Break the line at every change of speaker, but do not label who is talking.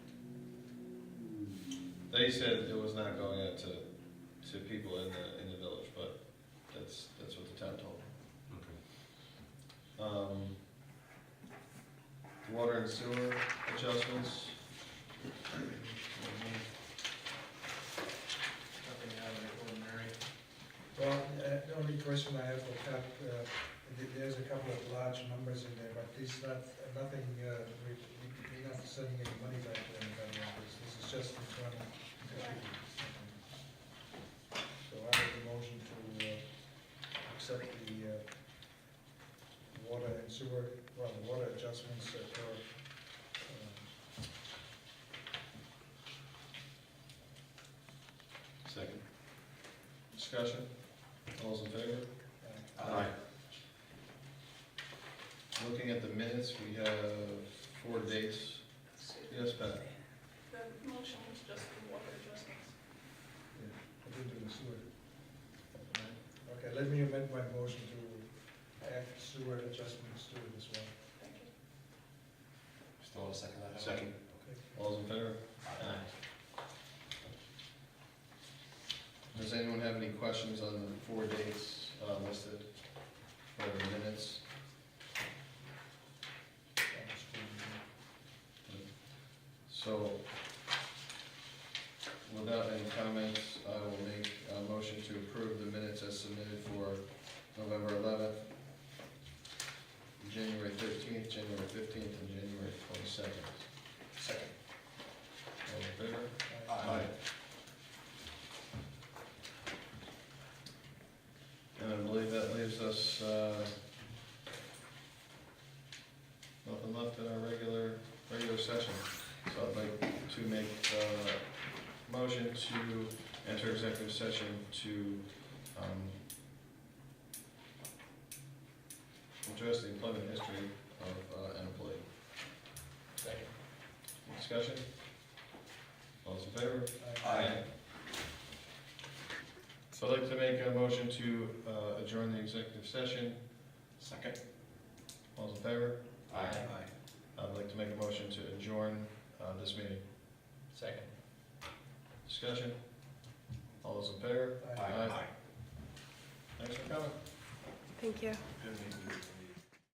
They said it was not going out to, to people in the, in the village, but that's, that's what the town told me.
Okay.
Um, Water and sewer adjustments.
Nothing out of the ordinary.
Well, uh, the only question I have for Pat, uh, th- there's a couple of large numbers in there, but these not, nothing, uh, we- we- we're not sending any money back to anybody on this. This is just internal. So I have a motion to uh, accept the uh, water and sewer, well, the water adjustments uh, for um,
Second. Discussion, all those in favor?
uh,
Looking at the minutes, we have four dates. Yes, Pat?
The motion was just the water adjustments.
I didn't do the sewer. Okay, let me amend my motion to add sewer adjustments to this one.
Thank you.
Still want to second that? Howard?
Second.
Okay.
All those in favor? Does anyone have any questions on the four dates uh, listed for the minutes?
That was good.
So, without any comments, I will make a motion to approve the minutes as submitted for November eleventh, January thirteenth, January fifteenth, and January twenty-second.
Second.
All in favor?
Uh,
Aye.
And I believe that leaves us, uh, nothing left in our regular, regular session. So I'd like to make uh motion to enter executive session to, um, address the employment history of uh, an employee.
Second.
Discussion? All those in favor?
Aye.
So I'd like to make a motion to uh, adjourn the executive session.
Second.
All those in favor?
Aye.
I'd like to make a motion to adjourn uh, this meeting.
Second.
Discussion? All those in favor?
Aye.
Aye. Thanks for coming.
Thank you.
Good meeting you.